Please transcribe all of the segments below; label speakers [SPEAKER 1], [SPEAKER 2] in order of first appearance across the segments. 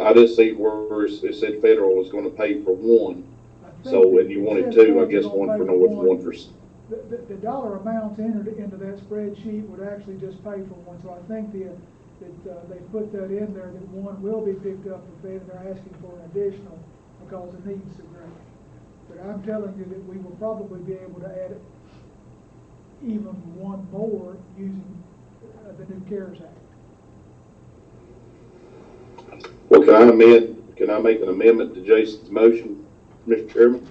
[SPEAKER 1] I just see where it said federal was gonna pay for one, so, and you wanted two, I guess one for North, one for, s-
[SPEAKER 2] The, the, the dollar amounts entered into that spreadsheet would actually just pay for one, so I think the, that, uh, they put that in there, that one will be picked up for Fed, and they're asking for an additional because the needs are great. But I'm telling you that we will probably be able to add even one more using uh, the new CARES Act.
[SPEAKER 1] well, can I amend, can I make an amendment to Jason's motion, Mr. Chairman?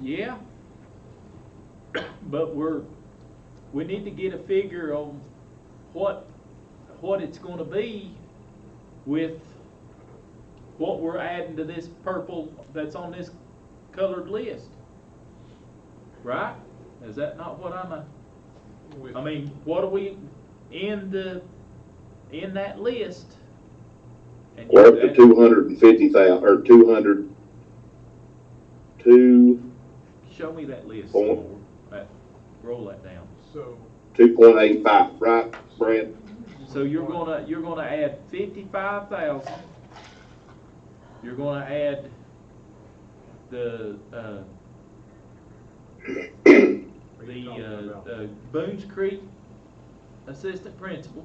[SPEAKER 3] Yeah. But we're, we need to get a figure on what, what it's gonna be with what we're adding to this purple that's on this colored list. Right? Is that not what I'm, a- I mean, what do we, in the, in that list? And
[SPEAKER 1] Or up to
[SPEAKER 3] that-
[SPEAKER 1] two hundred and fifty thousand or two hundred, two,
[SPEAKER 3] Show me that list.
[SPEAKER 1] Four.
[SPEAKER 3] Lord. That- Roll that down.
[SPEAKER 4] So,
[SPEAKER 1] two point eight five, right, Brad?
[SPEAKER 3] So you're gonna, you're gonna add fifty-five thousand. You're gonna add the, uh,
[SPEAKER 4] Are you
[SPEAKER 3] the,
[SPEAKER 4] talking
[SPEAKER 3] uh,
[SPEAKER 4] about-
[SPEAKER 3] the Boone's Creek Assistant Principal,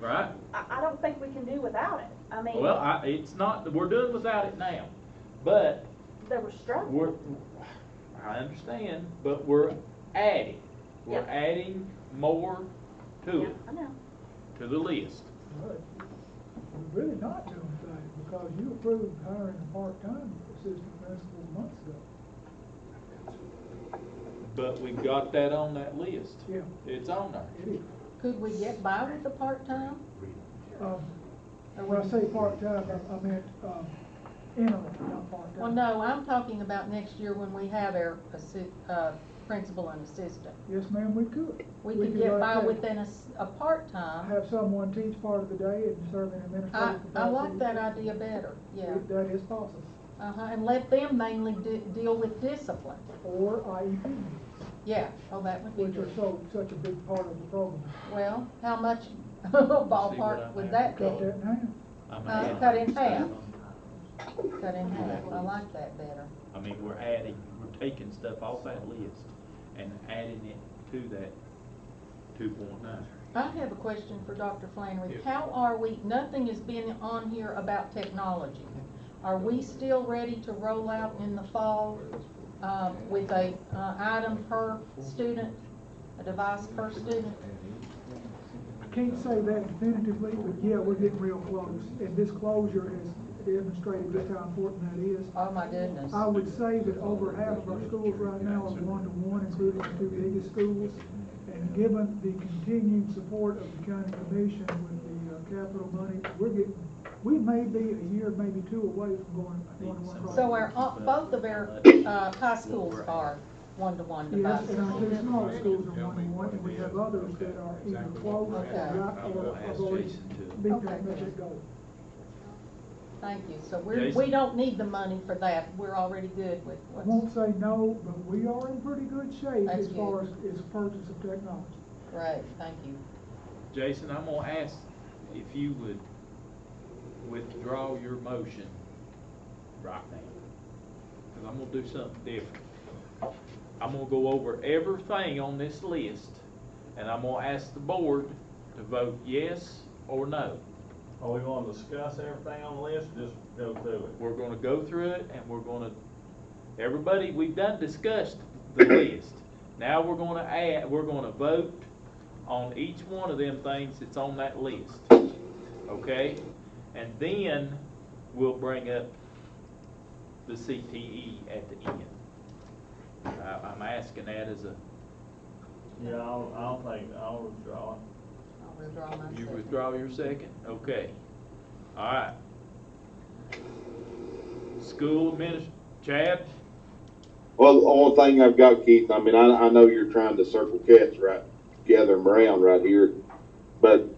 [SPEAKER 3] right?
[SPEAKER 5] I, I don't think we can do without it. I mean,
[SPEAKER 3] Well, I, it's not, we're doing without it now, but
[SPEAKER 5] they were struggling.
[SPEAKER 3] we're, I understand, but we're adding. We're
[SPEAKER 5] Yeah.
[SPEAKER 3] adding more to
[SPEAKER 5] Yeah,
[SPEAKER 3] it,
[SPEAKER 5] I know.
[SPEAKER 3] to the list.
[SPEAKER 2] But We're really not doing that, because you approved hiring a part-time assistant principal months ago.
[SPEAKER 3] But we've got that on that list.
[SPEAKER 2] Yeah.
[SPEAKER 3] It's on there.
[SPEAKER 2] It is.
[SPEAKER 6] Could we get by with the part-time?
[SPEAKER 2] Um, And when I say part-time, I- I meant, um, interim, not part-time.
[SPEAKER 6] Well, no, I'm talking about next year when we have our assi- uh, principal and assistant.
[SPEAKER 2] Yes, ma'am, we could.
[SPEAKER 6] We could get
[SPEAKER 2] like
[SPEAKER 6] by
[SPEAKER 2] that.
[SPEAKER 6] with an ass- a part-time.
[SPEAKER 2] Have someone teach part of the day and serve in
[SPEAKER 6] I,
[SPEAKER 2] administrative capacity.
[SPEAKER 6] I like that idea better, yeah.
[SPEAKER 2] If That is possible,
[SPEAKER 6] Uh-huh, and let them mainly de- deal with discipline.
[SPEAKER 2] or IEP,
[SPEAKER 6] Yeah, oh, that would be
[SPEAKER 2] which are
[SPEAKER 6] good.
[SPEAKER 2] so, such a big part of the program.
[SPEAKER 6] Well, how much
[SPEAKER 3] See what
[SPEAKER 6] ballpark
[SPEAKER 3] I
[SPEAKER 6] would
[SPEAKER 3] have.
[SPEAKER 6] that be?
[SPEAKER 2] Cut that in half.
[SPEAKER 3] I'm
[SPEAKER 6] Uh,
[SPEAKER 3] adding
[SPEAKER 6] cut in
[SPEAKER 3] stuff.
[SPEAKER 6] half. Cut in half, I like that better.
[SPEAKER 3] I mean, we're adding, we're taking stuff off that list and adding it to that two point nine.
[SPEAKER 6] I have a question for Dr. Flannery.
[SPEAKER 4] Yes.
[SPEAKER 6] How are we, nothing has been on here about technology. Are we still ready to roll out in the fall uh, with a uh, item per student, a device per student?
[SPEAKER 2] I can't say that definitively, but yeah, we're getting real close, and this closure has demonstrated just how important that is.
[SPEAKER 6] Oh, my goodness.
[SPEAKER 2] I would say that over half of our schools right now are one-to-one, including the two biggest schools. And given the continued support of the county commission with the uh, capital money, we're getting, we may be a year, maybe two away from going one-to-one.
[SPEAKER 6] So our, uh, both of our uh, high schools are one-to-one
[SPEAKER 2] Yes,
[SPEAKER 6] devices.
[SPEAKER 2] and our two smaller schools are one-to-one, and we have others that are either closed or
[SPEAKER 6] Okay.
[SPEAKER 2] not, or
[SPEAKER 3] I'll
[SPEAKER 2] have
[SPEAKER 3] ask
[SPEAKER 2] already
[SPEAKER 3] Jason to-
[SPEAKER 2] been
[SPEAKER 6] Okay.
[SPEAKER 2] that metric goal.
[SPEAKER 6] Thank you. So we're,
[SPEAKER 3] Jason?
[SPEAKER 6] we don't need the money for that. We're already good with
[SPEAKER 2] I
[SPEAKER 6] what's.
[SPEAKER 2] won't say no, but we are in pretty good shape
[SPEAKER 6] That's
[SPEAKER 2] as far as,
[SPEAKER 6] good.
[SPEAKER 2] as purchase of technology.
[SPEAKER 6] Great, thank you.
[SPEAKER 3] Jason, I'm gonna ask if you would withdraw your motion right now. Cause I'm gonna do something different. I'm gonna go over everything on this list and I'm gonna ask the board to vote yes or no.
[SPEAKER 7] Are we gonna discuss everything on the list, or just go through it?
[SPEAKER 3] We're gonna go through it and we're gonna, everybody, we've done discussed the list. Now we're gonna add, we're gonna vote on each one of them things that's on that list. Okay? And then we'll bring up the CTE at the end. I, I'm asking that as a,
[SPEAKER 7] Yeah, I'll, I'll take, I'll withdraw it.
[SPEAKER 6] I'll withdraw my
[SPEAKER 3] you
[SPEAKER 6] second.
[SPEAKER 3] withdraw your second? Okay. All right. School adminis, Chad?
[SPEAKER 1] Well, the only thing I've got, Keith, I mean, I, I know you're trying to circle cats right, gather them around right here, but,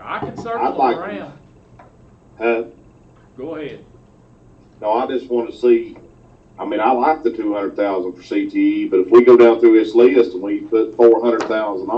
[SPEAKER 3] I can
[SPEAKER 1] I'd
[SPEAKER 3] circle them
[SPEAKER 1] like-
[SPEAKER 3] around.
[SPEAKER 1] uh,
[SPEAKER 3] Go ahead.
[SPEAKER 1] no, I just wanna see, I mean, I E, like the two hundred thousand for CTE, but if we go down through this list and we put four hundred thousand